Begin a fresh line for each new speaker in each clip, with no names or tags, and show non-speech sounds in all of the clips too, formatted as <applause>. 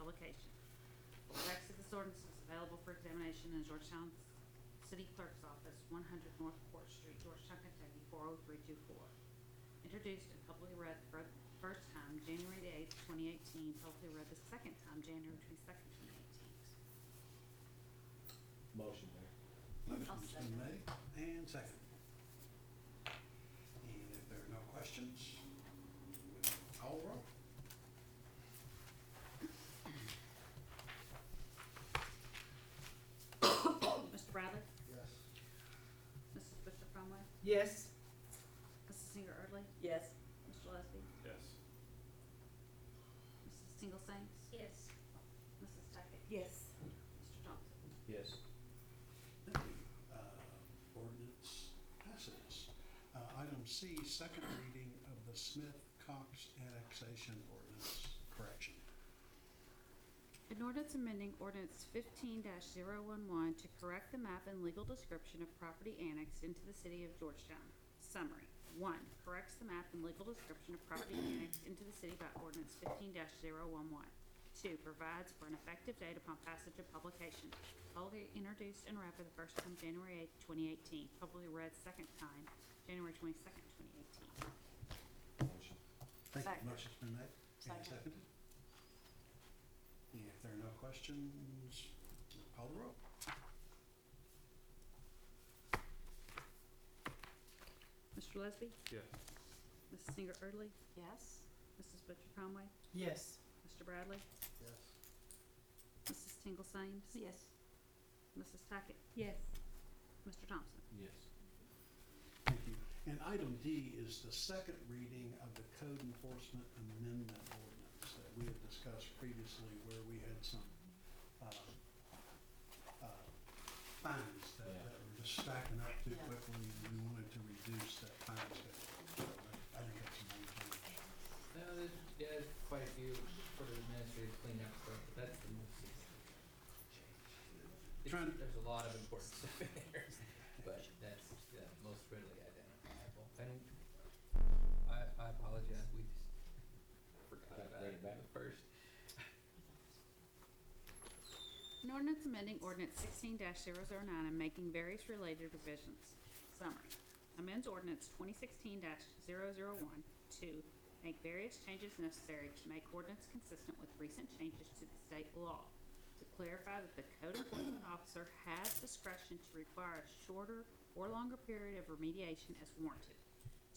application. The text of this ordinance is available for examination in Georgetown City Clerk's Office, one hundred North Court Street, Georgetown, Kentucky, four oh three two four. Introduced and publicly read the fir- first time, January the eighth, twenty eighteen, publicly read the second time, January twenty-second, twenty eighteen.
Motion, Mayor.
Motion's
second.
been made and second. And if there are no questions, we'll call roll.
Mr. Bradley?
Yes.
Mrs. Bishop Conway?
Yes.
Mrs. Singer Erdley?
Yes.
Mr. Lesby?
Yes.
Mrs. Single Saints?
yes,
Mrs. Duckett?
Yes.
Mr. Johnson?
Yes.
Thank you. Uh, Ordinance passes. Uh, Item C, second reading of the Smith-Cox annexation ordinance correction.
An ordinance amending ordinance fifteen 11 to correct the map and legal description of property annexed into the city of Georgetown. Summary, one, corrects the map and legal description of property annexed into the city by ordinance fifteen 11 Two, provides for an effective date upon passage of publication. Publicly introduced and read for the first time January eighth, twenty eighteen, publicly read second time, January twenty-second, twenty eighteen.
Motion.
Thank
Second.
you. Motion's been made and
Second.
seconded. And if there are no questions, we'll call the roll.
Mr. Lesby?
Yes.
Mrs. Singer Erdley?
Yes.
Mrs. Butcher Conway?
Yes.
Mr. Bradley?
Yes.
Mrs. Tingle Sames?
Yes.
Mrs. Tackett?
Yes.
Mr. Thompson?
Yes.
Thank you. And item D is the second reading of the code enforcement amendment ordinance that we had discussed previously where we had some uh, uh, fines that that were just stacking up too
Yeah.
quickly, and we wanted to reduce that fine schedule. So I think that's a
No, there's, yeah, there's quite a few sort of administrative cleanup stuff, but that's the most. It's-
Trying-
There's a lot of <laughs> important stuff in there, but that's the most readily identifiable. I don't, I, I apologize, we just forgot
Gotta
about
bring
it
it back.
at first.
An ordinance amending ordinance sixteen 9 and making various related revisions. Summary. Amends ordinance twenty sixteen one to make various changes necessary to make ordinance consistent with recent changes to the state law. To clarify that the code enforcement officer has discretion to require a shorter or longer period of remediation as warranted.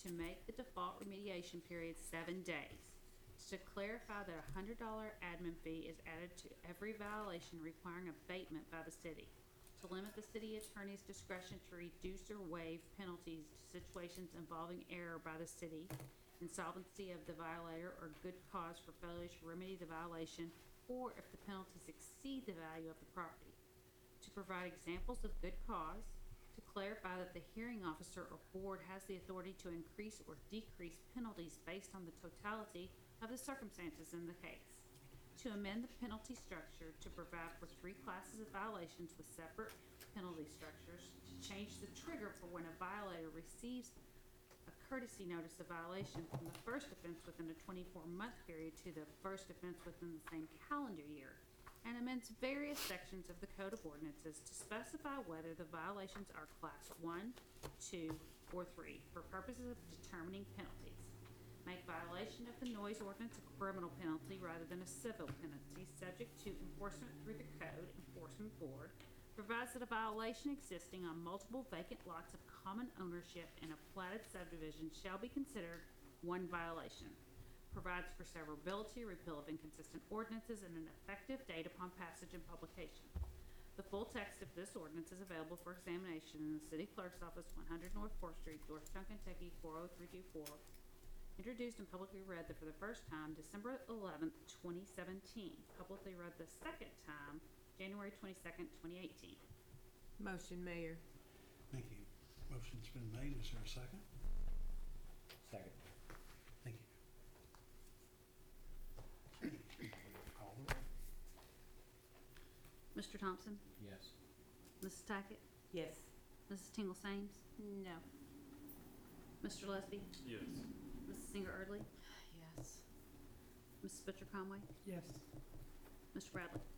To make the default remediation period seven days. to clarify that a hundred dollar admin fee is added to every violation requiring abatement by the city. To limit the city attorney's discretion to reduce or waive penalties to situations involving error by the city, insolvency of the violator, or good cause for failure to remedy the violation, or if the penalties exceed the value of the property to provide examples of good cause, to clarify that the hearing officer or board has the authority to increase or decrease penalties based on the totality of the circumstances in the case, to amend the penalty structure to provide for three classes of violations with separate penalty structures, to change the trigger for when a violator receives a courtesy notice of violation from the first offense within a 24-month period to the first offense within the same calendar year, and amends various sections of the Code of Ordinances to specify whether the violations are Class 1, 2, or 3 for purposes of determining penalties. Make violation of the noise ordinance a criminal penalty rather than a civil penalty, subject to enforcement through the Code Enforcement Board, provides that a violation existing on multiple vacant lots of common ownership in a platted subdivision shall be considered one violation. Provides for severability, repeal of inconsistent ordinances, and an effective date upon passage and publication. The full text of this ordinance is available for examination in the city clerk's office, one hundred North Fourth Street, Georgetown, Kentucky, four oh three two four, introduced and publicly read the, for the first time December 11th, 2017, publicly read the second time January 22nd, 2018.
Motion, Mayor.
Thank you. Motion's been made. Is there a second?
Second.
Thank you. Okay, we'll Call the roll.
Mr. Thompson,
Yes.
Mrs. Tackett,
Yes.
Mrs. Tingle Sames,
No.
Mr. Lesby,
Yes.
Mrs. Singer Erdley,
Yes.
Mrs. Butcher Conway,
Yes.